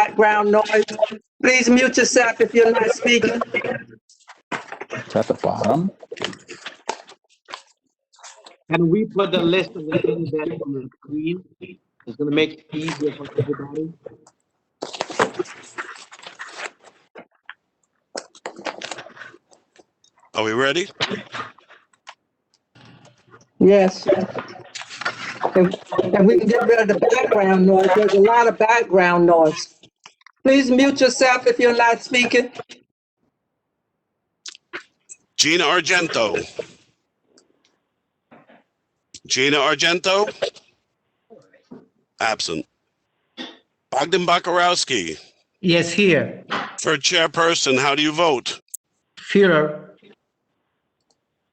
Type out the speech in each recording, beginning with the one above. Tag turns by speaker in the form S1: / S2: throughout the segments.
S1: background noise. Please mute yourself if you're not speaking.
S2: It's at the bottom.
S3: Can we put the list of the things that on the screen? It's gonna make it easier for everybody.
S4: Are we ready?
S1: Yes. If if we can get rid of the background noise, there's a lot of background noise. Please mute yourself if you're not speaking.
S4: Gina Argento. Gina Argento? Absent. Bogdan Bakarowski,
S5: Yes, here.
S4: for chairperson, how do you vote?
S5: Führer.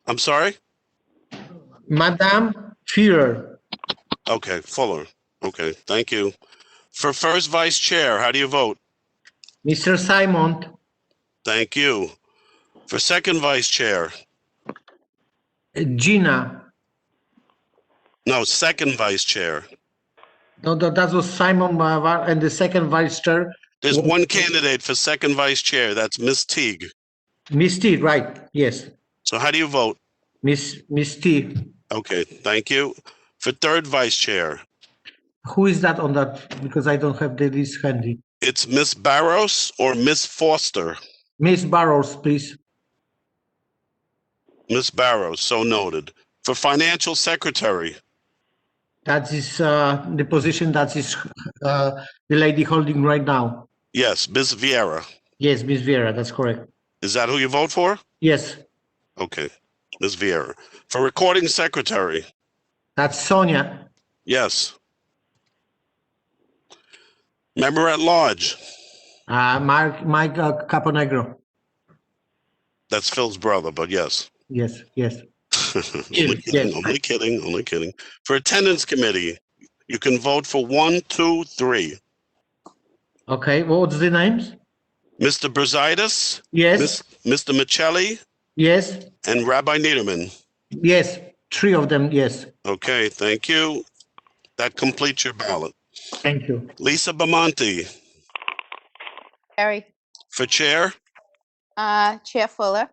S4: I'm sorry?
S5: Madame Führer.
S4: Okay, Fuller. Okay, thank you. For first vice chair, how do you vote?
S5: Mr. Simon.
S4: Thank you. For second vice chair,
S5: Gina.
S4: no, second vice chair.
S5: No, that, that was Simon Mavar and the second vice chair,
S4: There's one candidate for second vice chair, that's Miss Teague.
S5: Miss T, right? Yes,
S4: So how do you vote?
S5: Miss Miss T.
S4: Okay, thank you. For third vice chair,
S5: Who is that on that? Because I don't have the list handy.
S4: it's Miss Barros or Miss Foster?
S5: Miss Barrows, please.
S4: Miss Barros, so noted. For financial secretary,
S5: That is uh, the position that is uh, the lady holding right now.
S4: yes, Miss Vieira.
S5: Yes, Miss Vera, that's correct.
S4: Is that who you vote for?
S5: Yes,
S4: Okay, Miss Vieira. For recording secretary,
S5: that's Sonia.
S4: yes. Member at large,
S5: Uh, Mark, Mike uh, Caponegro.
S4: that's Phil's brother, but yes.
S5: Yes, yes.
S4: only kidding, only kidding, only kidding. For attendance committee, you can vote for one, two, three.
S5: Okay, what's the names?
S4: Mr. Brusitis,
S5: Yes,
S4: Miss- Mr. Michelli,
S5: yes,
S4: and Rabbi Niederman.
S5: yes. Three of them, yes.
S4: Okay, thank you. That completes your ballot.
S5: Thank you.
S4: Lisa Bamonte
S6: Barry,
S4: for chair,
S6: uh, Chair Fuller,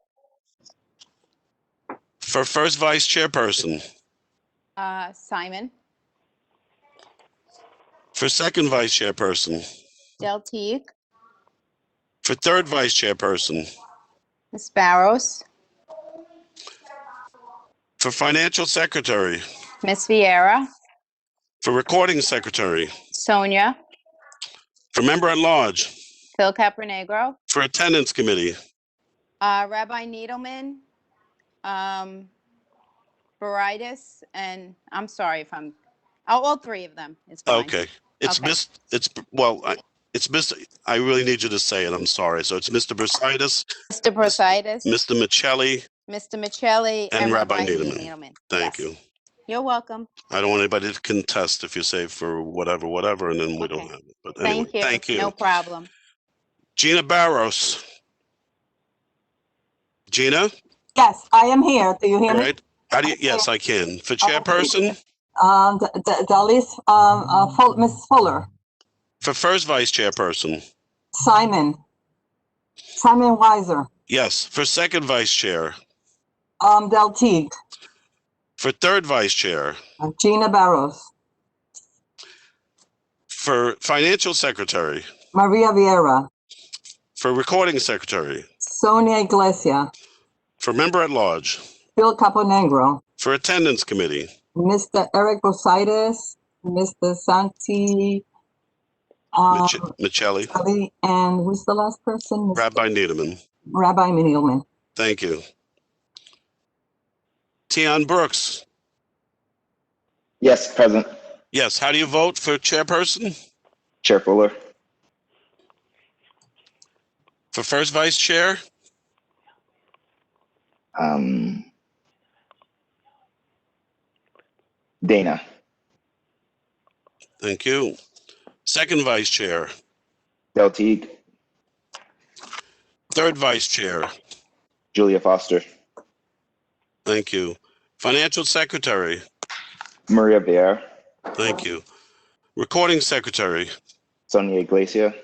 S4: for first vice chairperson,
S6: uh, Simon,
S4: Hmm. for second vice chairperson,
S6: Del Teague,
S4: for third vice chairperson,
S6: Ms. Barros,
S4: for financial secretary,
S6: Ms. Viera,
S4: for recording secretary,
S6: Sonia,
S4: for member at large,
S6: Phil Capronegro,
S4: for attendance committee,
S6: uh, Rabbi Needleman, um, Baritis, and I'm sorry if I'm, oh, all three of them. It's fine.
S4: Okay, it's
S6: Okay.
S4: Miss, it's, well, I- it's Mr., I really need you to say it, I'm sorry. So it's Mr. Brusitis,
S6: Mr. Prositis,
S4: Mr. Michelli,
S6: Mr. Michelli,
S4: And
S6: and
S4: Rabbi
S6: Rabbi
S4: Needleman.
S6: Needleman.
S4: thank
S6: Yes.
S4: you.
S6: You're welcome.
S4: I don't want anybody to contest if you say for whatever, whatever, and then we don't
S6: Okay.
S4: have it. But anyway,
S6: Thank you.
S4: thank
S6: No
S4: you.
S6: problem.
S4: Gina Barros. Gina,
S7: Yes, I am here. Do you hear me? Oh,
S4: right? How do you, yes, I can. For chairperson,
S7: Um, D- D- Dalis, um, uh, Full, Ms. Fuller,
S4: for first vice chairperson,
S7: Simon, Simon Weiser,
S4: yes. For second vice chair,
S7: um, Del Teague,
S4: for third vice chair,
S7: uh, Gina Barros,
S4: for financial secretary,
S7: Maria Vieira,
S4: for recording secretary,
S7: Sonia Iglesia,
S4: for member at large,
S7: Bill Caponegro,
S4: for attendance committee,
S7: Mr. Eric Brusitis, Mr. Santi, um,
S4: Mich- Michelli,
S7: Ali, and who's the last person?
S4: Rabbi Needleman.
S7: Rabbi Needleman.
S4: Thank you. Tion Brooks.
S8: Yes, present.
S4: Yes, how do you vote for chairperson?
S8: Chair Fuller.
S4: For first vice chair?
S8: Um, Dana.
S4: Thank you. Second vice chair,
S8: Del Teague.
S4: third vice chair,
S8: Julia Foster.
S4: thank you. Financial secretary,
S8: Maria Bear.
S4: thank you. Recording secretary,
S8: Sonia Iglesia.